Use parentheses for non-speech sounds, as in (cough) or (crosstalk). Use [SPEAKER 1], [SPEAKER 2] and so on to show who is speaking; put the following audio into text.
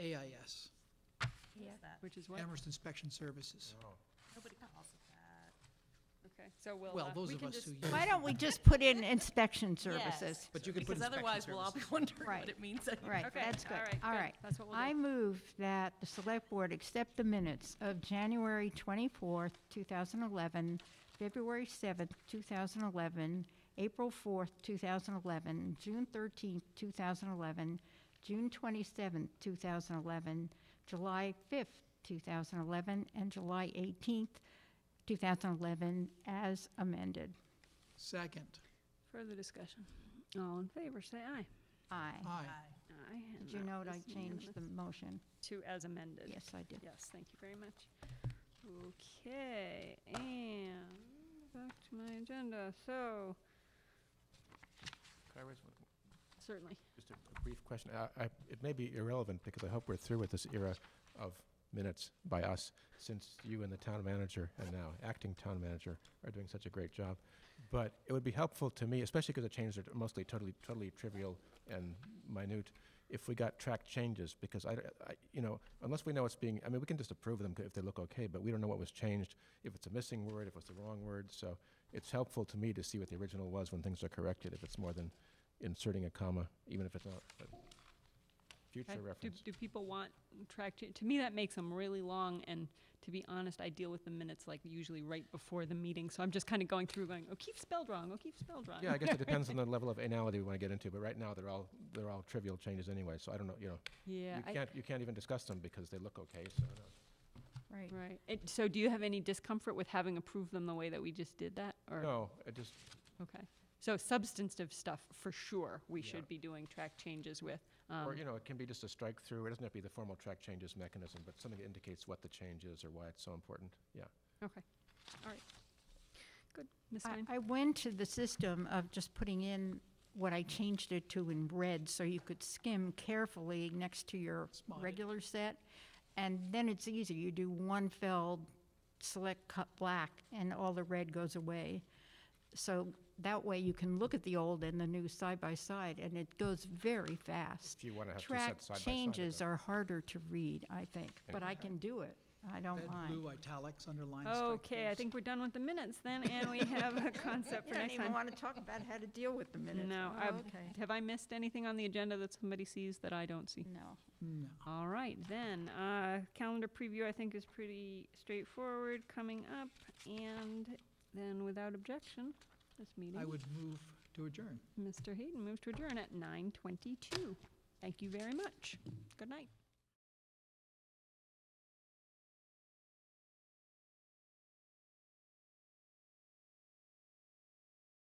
[SPEAKER 1] AIS,
[SPEAKER 2] Yeah.
[SPEAKER 3] Which is what? Oh.
[SPEAKER 1] Amherst Inspection Services.
[SPEAKER 2] Nobody calls it that.
[SPEAKER 3] Okay, so we'll.
[SPEAKER 1] Well,
[SPEAKER 3] uh,
[SPEAKER 1] those
[SPEAKER 3] we
[SPEAKER 1] of
[SPEAKER 3] can
[SPEAKER 1] us who
[SPEAKER 3] just-
[SPEAKER 1] use,
[SPEAKER 4] Why don't we just put in
[SPEAKER 3] (laughs)
[SPEAKER 4] inspection services?
[SPEAKER 1] but you could put
[SPEAKER 2] Because
[SPEAKER 1] inspection
[SPEAKER 2] otherwise, we'll all be
[SPEAKER 1] services.
[SPEAKER 2] wondering what
[SPEAKER 4] Right.
[SPEAKER 2] it means. anyway.
[SPEAKER 4] Right,
[SPEAKER 3] Okay,
[SPEAKER 4] that's good.
[SPEAKER 3] all right,
[SPEAKER 4] All
[SPEAKER 3] good.
[SPEAKER 4] right.
[SPEAKER 3] That's what we'll do.
[SPEAKER 4] I move that the select board accept the minutes of January 24th, 2011, February 7th, 2011, April 4th, 2011, June 13th, 2011, June 27th, 2011, July 5th, 2011, and July 18th, 2011, as amended.
[SPEAKER 1] Second,
[SPEAKER 3] Further discussion. All in favor, say aye.
[SPEAKER 4] Aye.
[SPEAKER 1] aye.
[SPEAKER 3] Aye. and
[SPEAKER 4] Did you
[SPEAKER 3] that
[SPEAKER 4] note I
[SPEAKER 3] is
[SPEAKER 4] changed
[SPEAKER 3] unanimous.
[SPEAKER 4] the motion?
[SPEAKER 3] To as amended.
[SPEAKER 4] Yes, I did.
[SPEAKER 3] Yes, thank you very much. Okay, and back to my agenda, so,
[SPEAKER 5] Can I raise one-
[SPEAKER 3] certainly.
[SPEAKER 5] Just a a brief question. I- I- It may be irrelevant because I hope we're through with this era of minutes by us since you and the town manager and now acting town manager are doing such a great job. But it would be helpful to me, especially because the changes are mostly totally, totally trivial and minute, if we got track changes because I, I- you know, unless we know it's being, I mean, we can just approve them if they look okay, but we don't know what was changed, if it's a missing word, if it's the wrong word. So it's helpful to me to see what the original was when things are corrected, if it's more than inserting a comma, even if it's not, but
[SPEAKER 3] I-
[SPEAKER 5] future
[SPEAKER 3] do-
[SPEAKER 5] reference.
[SPEAKER 3] Do people want track, cha- to me, that makes them really long, and to be honest, I deal with the minutes like usually right before the meeting, so I'm just kind of going through going, O'Keefe spelled wrong, O'Keefe spelled wrong.
[SPEAKER 5] Yeah, I guess it
[SPEAKER 3] (laughs)
[SPEAKER 5] depends on the level of anality we want to get into, but right now, they're all, they're all trivial changes anyway, so I don't know, you know.
[SPEAKER 3] Yeah,
[SPEAKER 5] You
[SPEAKER 3] I-
[SPEAKER 5] can't, you can't even discuss them because they look okay, so I don't know.
[SPEAKER 4] Right.
[SPEAKER 3] right. And So do you have any discomfort with having approved them the way that we just did that, or?
[SPEAKER 5] No, it just,
[SPEAKER 3] Okay, so substantive stuff, for sure, we
[SPEAKER 5] Yeah.
[SPEAKER 3] should be doing track changes with.
[SPEAKER 5] or,
[SPEAKER 3] um,
[SPEAKER 5] you know, it can be just a strike through, it doesn't have to be the formal track changes mechanism, but something that indicates what the change is or why it's so important, yeah.
[SPEAKER 3] Okay, all right. Good, Ms.
[SPEAKER 4] I-
[SPEAKER 3] Stein?
[SPEAKER 4] I went to the system of just putting in what I changed it to in red, so you could skim carefully next to your
[SPEAKER 1] Spotted.
[SPEAKER 4] regular set. And then it's easy, you do one fell, select cut black, and all the red goes away. So that way you can look at the old and the new side by side, and it goes very fast.
[SPEAKER 5] If you want to have two
[SPEAKER 4] Track
[SPEAKER 5] sets side by side.
[SPEAKER 4] changes are harder to read, I think, but I can do it, I don't
[SPEAKER 1] Red,
[SPEAKER 4] mind.
[SPEAKER 1] blue, italics, underlines.
[SPEAKER 3] Okay, I think we're done with the minutes
[SPEAKER 4] (laughs)
[SPEAKER 3] then, and we have a concept for next time.
[SPEAKER 4] to talk about how to deal with the
[SPEAKER 3] No,
[SPEAKER 4] Oh,
[SPEAKER 3] I've-
[SPEAKER 4] okay.
[SPEAKER 3] have I missed anything on the agenda that somebody sees that I don't see?
[SPEAKER 4] No.
[SPEAKER 1] No.
[SPEAKER 3] All right, then, uh, calendar preview I think is pretty straightforward coming up, and then without objection, this
[SPEAKER 1] I
[SPEAKER 3] meeting,
[SPEAKER 1] would move to adjourn.
[SPEAKER 3] Mr. Hayden moves to adjourn at nine twenty-two. Thank you very much. Good night.